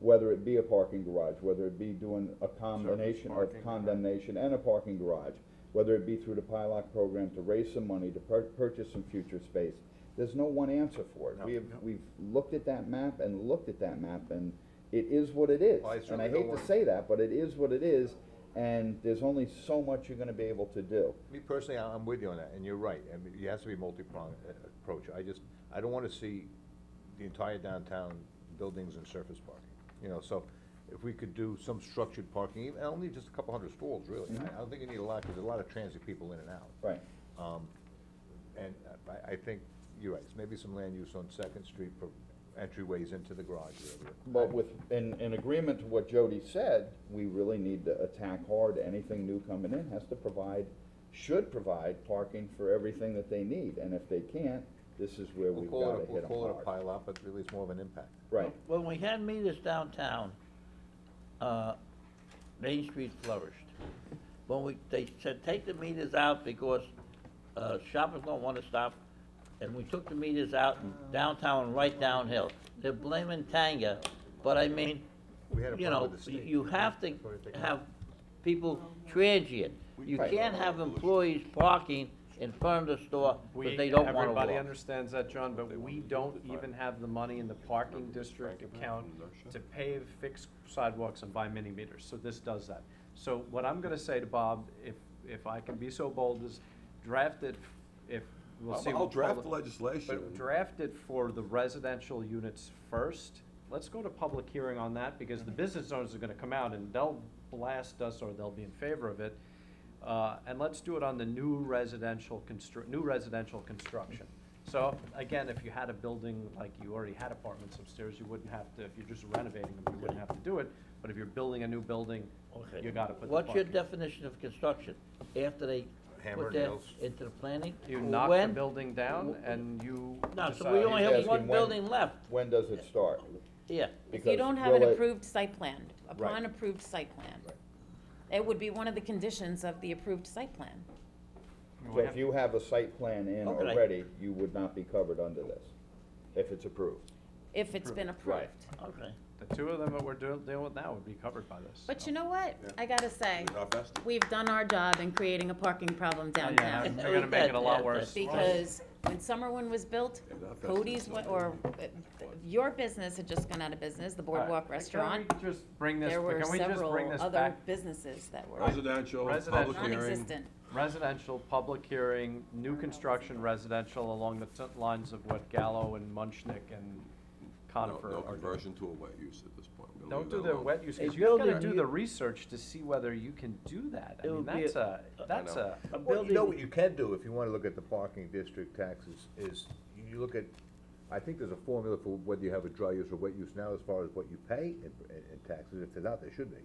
whether it be a parking garage, whether it be doing a combination of parking, right. condemnation and a parking garage, whether it be through the PILOC program to raise some money, to pur- purchase some future space, there's no one answer for it. No. We have, we've looked at that map and looked at that map, and it is what it is. Well, I And certainly I don't hate to want- say that, but it is what it is, and there's only so much you're gonna be able to do. Me personally, I- I'm with you on that, and you're right, I mean, it has to be a multi-pronged uh, approach, I just, I don't wanna see the entire downtown buildings and surface parking, you know, so if we could do some structured parking, even, only just a couple hundred stalls, really, Mm-hmm. I I don't think you need a lot, cause there's a lot of transit people in and out. Right. Um, and uh, I, I think, you're right, it's maybe some land use on Second Street for entryways into the garage area. But with, in, in agreement to what Jody said, we really need to attack hard, anything new coming in has to provide, should provide parking for everything that they need, and if they can't, this is where We'll we've call gotta it, a- hit we'll them call it a hard. pileup, but really it's more of an impact. Right, When we had meters downtown, uh, Main Street flourished. When we, they said, take the meters out because uh, shoppers don't want to stop, and we took the meters out downtown and right downhill. They're blaming Tanga, but I mean, We had a you problem know, with the you state. you have to Before they take it out. have people transient. You Right. can't have employees parking in front of the store because We, they don't want to everybody walk. understands that, John, but we don't even have the money in the parking district account to pave, fix sidewalks and buy mini meters, so this does that. So what I'm gonna say to Bob, if, if I can be so bold, is draft it, if, we'll see. I'll- I'll what draft public- the legislation. But draft it for the residential units first, let's go to public hearing on that, because the business owners are gonna come out and they'll blast us or they'll be in favor of it. Uh, and let's do it on the new residential constru, new residential construction. So, again, if you had a building, like you already had apartments upstairs, you wouldn't have to, if you're just renovating them, you wouldn't have to do it, but if you're building a new building, Okay. you gotta put the What's your parking. definition of construction? After they Hammer put that nails. into the planning? You knock the When- building down and you No, so we decide- only He's have one asking when- building left, when does it start? yeah. If you Because don't have will an it- approved site plan, Right. upon approved site plan. It would be one of the conditions of the approved site plan. So if you have a site plan in Okay. already, you would not be covered under this, if it's approved. if it's been Right. approved. Okay. The two of them that we're deal- dealing with now would be covered by this. But you know what? I gotta say, Not best. we've done our job in creating a parking problem Oh, yeah, downtown. They're gonna make it a lot worse. Because when Summerwin was built, Cody's, went- or uh, your business had just gone out of business, the Boardwalk Restaurant. Uh, Can we just bring this, There were can we just bring several this other back? businesses that were Residential, public Residential. hearing. non-existent. Residential, public hearing, new construction residential along the t- lines of what Gallo and Munchnick and No Conifer no are doing. conversion to a wet use at this point. We're gonna Don't leave do that the alone. wet use, A cause you gotta building do you- the research to see whether you can do that. I It mean, would be that's a, that's know. a, A Well, you know building, what you can do, if you wanna look at the parking district taxes, is you- you look at, I think there's a formula for whether you have a dry use or wet use now as far as what you pay in, in- in taxes, if there's not, there should be.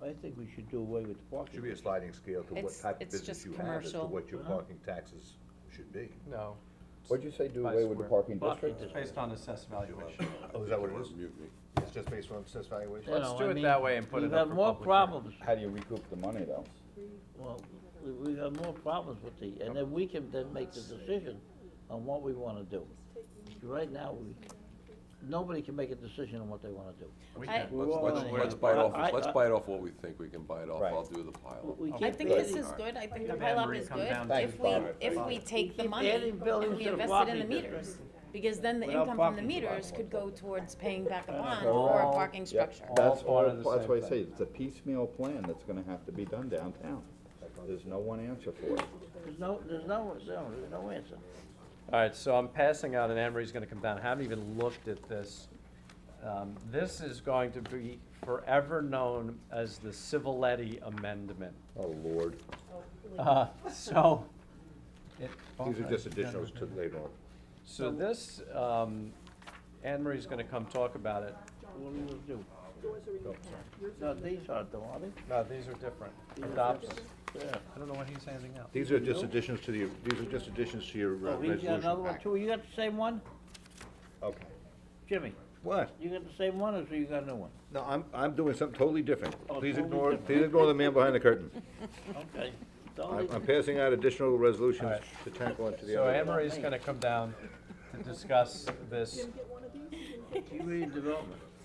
I think we should do away with parking. Should be a sliding scale to what It's- type of it's business just you have, as to commercial. Mm-hmm. what your parking taxes should be. no, What'd you say, do By away with the square. parking Parking district? district. based on assessed valuation. Oh, is that what it is? Mutiny. It's just based on assessed You valuation? Let's know, do I it mean, that way and put it We've up got for more public hearing. problems, How do you recoup the money, though? well, we- we've got more problems with the, and then we can then make the decision on what we wanna do. Right now, we, nobody can make a decision on what they wanna do. We I- can- We Let's, won't let's, wanna- let's bite I- I- off, let's bite off what we think we can bite off. Right. I'll do the pile. We I can't think do this it. is good, I think the Come down, pileup Marie, is come good, down. if we, Thanks, Bob. if we take the Keep money adding buildings and we to the invest it in the parking meters. Because then the Without income from the parking. meters could go towards paying back a bond They're or a all- parking Yep. structure. That's All all, part of the that's same why I say, thing. it's a piecemeal plan that's gonna have to be done downtown. There's no one answer for it. There's no, there's no, there's no answer. All right, so I'm passing out, and Anne Marie's gonna come down. I haven't even looked at this. Um, This is going to be forever known as the Civiletti Amendment. Oh, Lord. Uh, So, it- These are just additionals to later on. so this, um, Anne Marie's gonna come talk about it. What do you wanna do? No, these aren't though, are they? No, Uh, these are different. Adopts, Yeah. I don't know what he's handing out. These are just additions to the, these are just additions to your uh, Oh, he's got resolution another one packet. too, you got the same one? Okay. Jimmy, What? you got the same one, or so you got a new one? No, I'm, I'm doing something totally different. Oh, Please totally ignore, different. please ignore the man behind the curtain. Okay. I'm, I'm passing out additional resolutions Alright. to tackle into the So other. Anne Marie's gonna come down to discuss this. Community development.